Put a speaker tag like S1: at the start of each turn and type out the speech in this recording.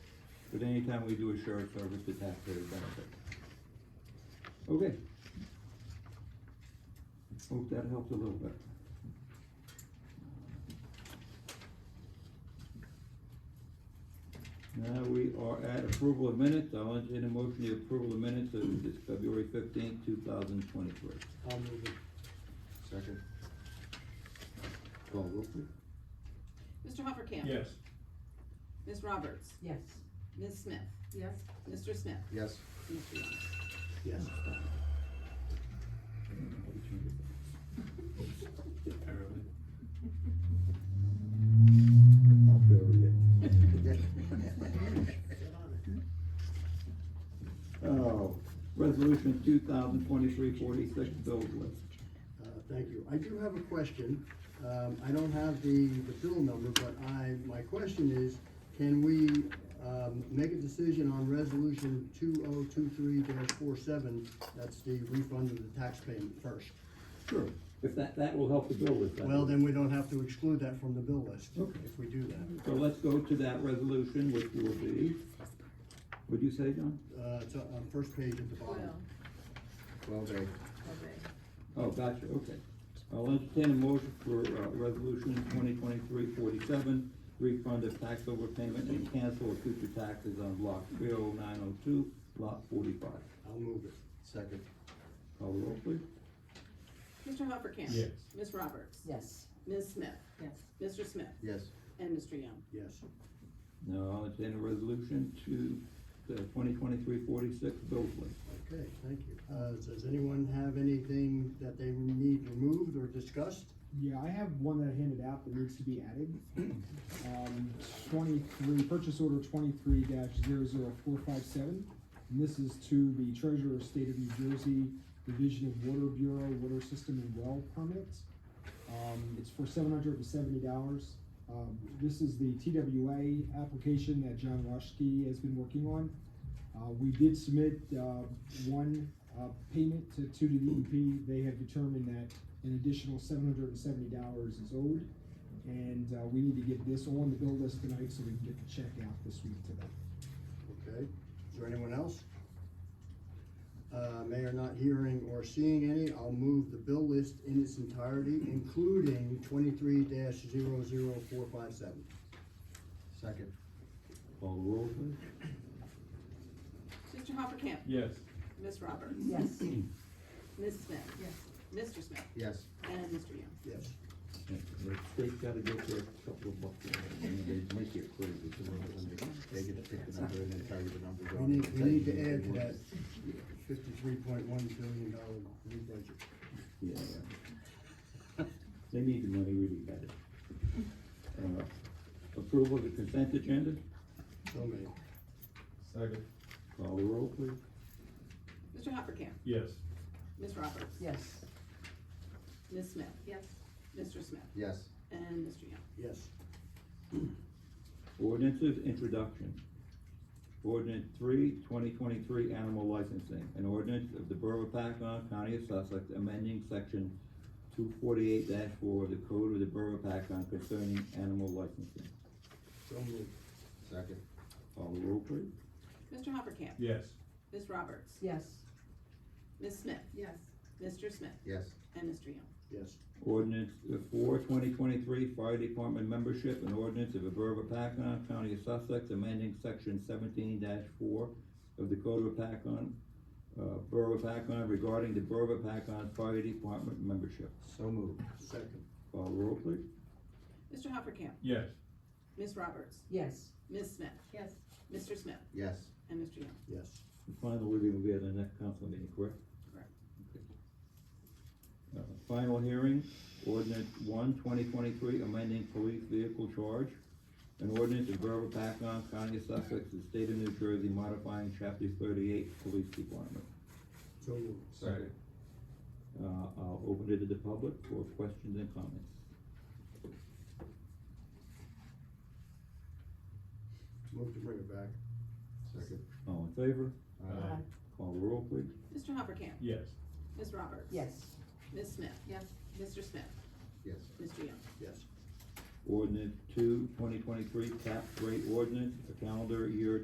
S1: but anytime we do a shared service, the taxpayer benefit. Okay. Hope that helped a little bit. Now we are at approval of minutes, I'll entertain a motion to approval of minutes of this February fifteenth, two thousand twenty-three.
S2: I'll move it.
S3: Second. Call roll please.
S4: Mr. Hoppercamp?
S5: yes,
S4: Ms. Roberts?
S6: yes,
S4: Ms. Smith?
S6: yes,
S4: Mr. Smith?
S3: Yes.
S4: Mr. Young?
S2: Yes.
S5: apparently.
S3: I'll bury it.
S2: Uh,
S1: Oh, resolution two thousand twenty-three forty-six, bills list.
S2: Uh, Thank you. I do have a question. Um, I don't have the, the bill number, but I, my question is, can we um, make a decision on resolution two oh two three 47 That's the refund of the tax payment first.
S1: Sure, if that, that will help the bill list. I
S2: Well,
S1: believe.
S2: then we don't have to exclude that from the bill list
S1: Okay.
S2: if we do that.
S1: So let's go to that resolution, which will be, what'd you say, John?
S2: Uh, It's on on first page at the bottom.
S3: Twelve A.
S1: Oh, gotcha, okay. I'll entertain a motion for, uh, resolution 2023-47, refund of tax overpayment and cancel of future taxes on block three oh nine oh two, lot forty-five.
S2: I'll move it.
S3: Second.
S1: Call the roll, please.
S4: Mr. Hoppercamp?
S5: Yes.
S4: Ms. Roberts?
S6: yes,
S4: Ms. Smith?
S6: yes,
S4: Mr. Smith?
S3: Yes.
S4: And Mr. Young?
S2: Yes.
S1: Now, I'll entertain a resolution to the 2023-46 bill list.
S2: Okay, thank you. Uh, Does anyone have anything that they need removed or discussed?
S7: Yeah, I have one that I handed out that needs to be added. Um, twenty-three, purchase order twenty-three 457 And this is to the Treasurer of State of New Jersey Division of Water Bureau Water System and Well Permit. Um, it's for seven hundred and seventy dollars. Um, this is the TWA application that John Roschke has been working on. Uh, we did submit, uh, one, uh, payment to, to the DEP. They have determined that an additional seven hundred and seventy dollars is owed. And, uh, we need to get this on the bill list tonight so we can get the check out this week to them.
S2: Okay, is there anyone else? Uh, Mayor not hearing or seeing any, I'll move the bill list in its entirety, including twenty-three 457
S3: Second.
S1: Call the roll, please.
S4: Mr. Hoppercamp?
S5: yes,
S4: Ms. Roberts?
S6: yes,
S4: Ms. Smith?
S6: yes.
S4: Mr. Smith?
S3: Yes.
S4: And Mr. Young?
S2: Yes.
S1: The state's gotta get their couple of bucks.
S3: And they make it crazy, so they get to pick the number and then tell you the number.
S2: We need, we need to add to that fifty-three point one billion dollar new budget.
S1: Yeah. They need the money really bad. Uh, Approval of the consent agenda,
S2: So many.
S5: second,
S1: call the roll, please.
S4: Mr. Hoppercamp?
S5: yes,
S4: Ms. Roberts?
S6: Yes.
S4: Ms. Smith?
S6: Yes.
S4: Mr. Smith?
S3: Yes.
S4: And Mr. Young?
S2: Yes.
S1: Ordinances introduction. Ordinance three, twenty twenty-three, animal licensing, an ordinance of the Borough of Paccon, County of Sussex, amending section two forty-eight four of the Code of the Borough of Paccon concerning animal licensing.
S2: So moved.
S3: Second.
S1: Call the roll, please.
S4: Mr. Hoppercamp?
S5: yes,
S4: Ms. Roberts?
S6: Yes.
S4: Ms. Smith?
S6: Yes.
S4: Mr. Smith?
S3: Yes.
S4: And Mr. Young?
S2: Yes.
S1: Ordinance four, twenty twenty-three, fire department membership, an ordinance of the Borough of Paccon, County of Sussex, amending section seventeen four of the Code of Paccon, uh, Borough of Paccon regarding the Borough of Paccon Fire Department membership.
S3: So moved.
S2: Second.
S1: Call the roll, please.
S4: Mr. Hoppercamp?
S5: yes,
S4: Ms. Roberts?
S6: Yes.
S4: Ms. Smith?
S6: Yes.
S4: Mr. Smith?
S3: Yes.
S4: And Mr. Young?
S2: Yes.
S1: The final reading will be at the next council meeting, correct?
S4: Correct.
S1: Okay. Uh, Final hearing, ordinance one, twenty twenty-three, amending police vehicle charge. An ordinance of Borough of Paccon, County of Sussex, the state of New Jersey, modifying chapter thirty-eight, police department.
S2: So moved.
S3: Second.
S1: Uh, I'll open it to the public for questions and comments.
S2: Move to bring it back.
S3: Second.
S1: All in favor?
S3: Aye.
S1: Call the roll, please.
S4: Mr. Hoppercamp?
S5: yes,
S4: Ms. Roberts?
S6: Yes.
S4: Ms. Smith?
S6: Yes.
S4: Mr. Smith?
S3: Yes.
S4: Mr. Young?
S2: Yes.
S1: Ordinance two, twenty twenty-three, tax rate ordinance, a calendar year